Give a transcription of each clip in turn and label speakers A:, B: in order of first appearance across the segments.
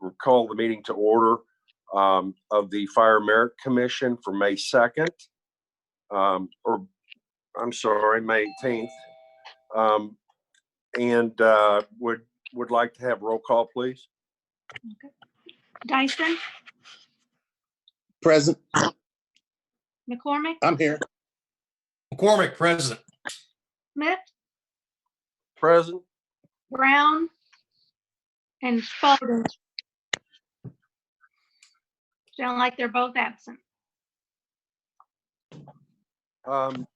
A: We'll Call the meeting to order um, of the Fire Merit Commission for May 2nd, um, or, I'm sorry, May 18th. Um, And uh, would, would like to have roll call, please.
B: Dyson,
C: Present.
B: McCormick,
C: I'm here.
D: McCormick, present.
B: Smith,
A: Present?
B: Brown, and Spalding. Sound like they're both absent.
A: Um,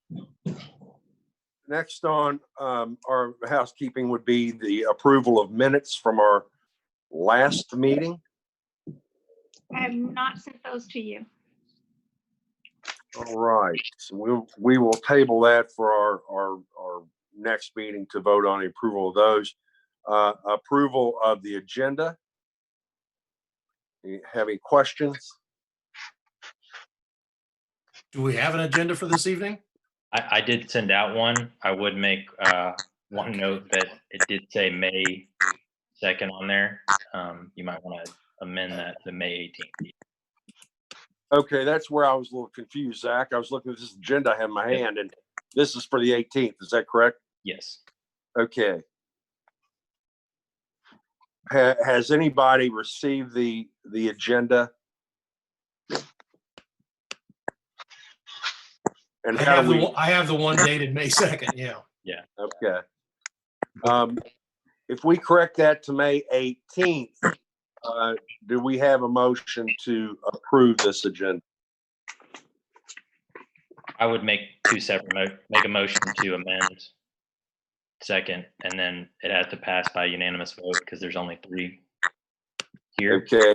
A: Next on um, our housekeeping would be the approval of minutes from our last meeting.
B: I have not sent those to you.
A: All right, so we'll, we will table that for our, our, our next meeting to vote on the approval of those. Uh, approval of the agenda. You Have any questions?
D: Do we have an agenda for this evening?
E: I, I did send out one. I would make uh, one note that it did say May 2nd on there. Um, You might want to amend that to May 18th.
A: Okay, that's where I was a little confused, Zach. I was looking at this agenda I have in my hand and this is for the eighteenth, is that correct?
E: Yes.
A: Okay. Ha- has anybody received the, the agenda? And
D: I
A: how
D: have
A: do we?
D: the, one- I have the one dated May 2nd, yeah.
A: Okay. Um, if we correct that to May eighteenth, uh, do we have a motion to approve this agenda?
E: I would make two separate, mo- make a motion to amend second, and then it has to pass by unanimous vote because there's only three here.
A: Okay.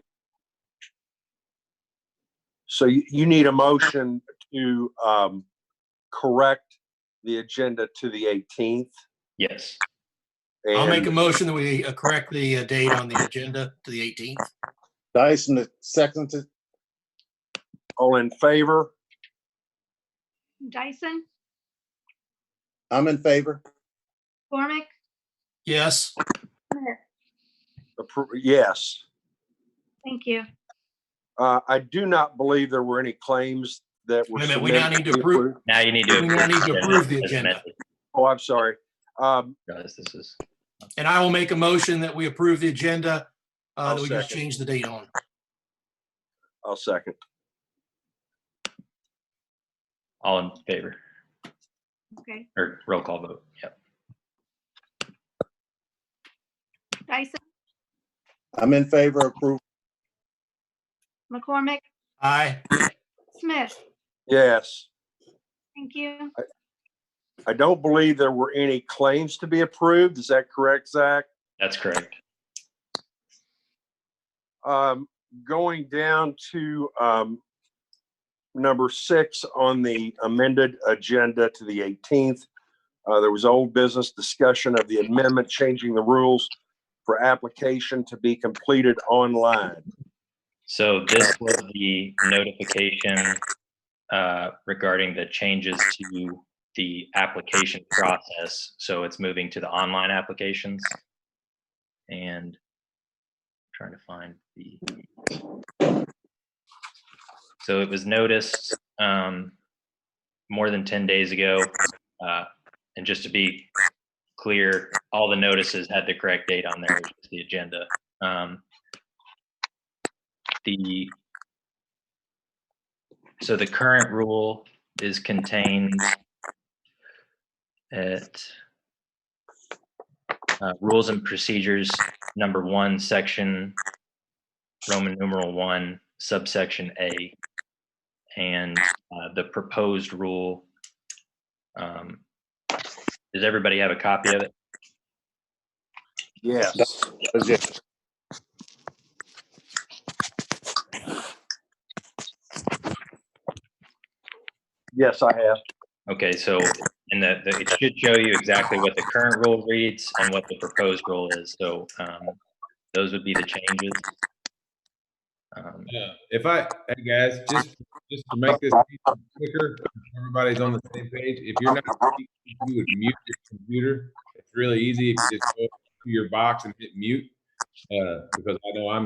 A: So you, you need a motion to, um, correct the agenda to the eighteenth?
E: Yes.
D: I'll make a motion that we uh, correct the uh, date on the agenda to the 18th.
C: Dyson, second.
A: All in favor?
B: Dyson,
C: I'm in favor.
B: McCormick,
D: Yes,
B: Smith.
A: Appro- Yes.
B: Thank you.
A: Uh, I do not believe there were any claims that were
D: Wait a minute, we now
A: submitted
D: need to approve-
A: approved.
E: Now you need to.
D: We now need to approve the
E: as
D: agenda.
E: amended,
A: Oh, I'm sorry. Um,
E: Guys, this is,
D: and I will make a motion that we approve the agenda uh,
A: I'll
D: that we just
A: second.
D: changed the date on.
A: I'll second.
E: all in favor,
B: Okay.
E: or roll call vote. Yep.
B: Dyson,
C: I'm in favor of approval.
B: McCormick,
D: Aye,
B: Smith.
A: Yes.
B: Thank you.
A: I don't believe there were any claims to be approved. Is that correct, Zach?
E: That's correct.
A: Um, going down to, um, number six on the amended agenda to the 18th. Uh, there was old business discussion of the amendment changing the rules for application to be completed online.
E: So this was the notification uh, regarding the changes to the application process. So it's moving to the online applications. And trying to find the. So it was noticed um, more than 10 days ago. uh, And just to be clear, all the notices had the correct date on there, which is the agenda. Um, the, so the current rule is contained at uh, Rules and Procedures, number one, section, Roman numeral one, subsection A. And uh, the proposed rule. um, Does everybody have a copy of it?
A: Yes. Yes, I have.
E: Okay, so in the, the- it should show you exactly what the current rule reads and what the proposed rule is, so, um, those would be the changes. Um,
F: Yeah, if I, hey guys, just, just to make this quicker, everybody's on the same page. If you're not, speaking, you would mute your computer. It's really easy if you just go to your box and hit mute. Uh, because I know I'm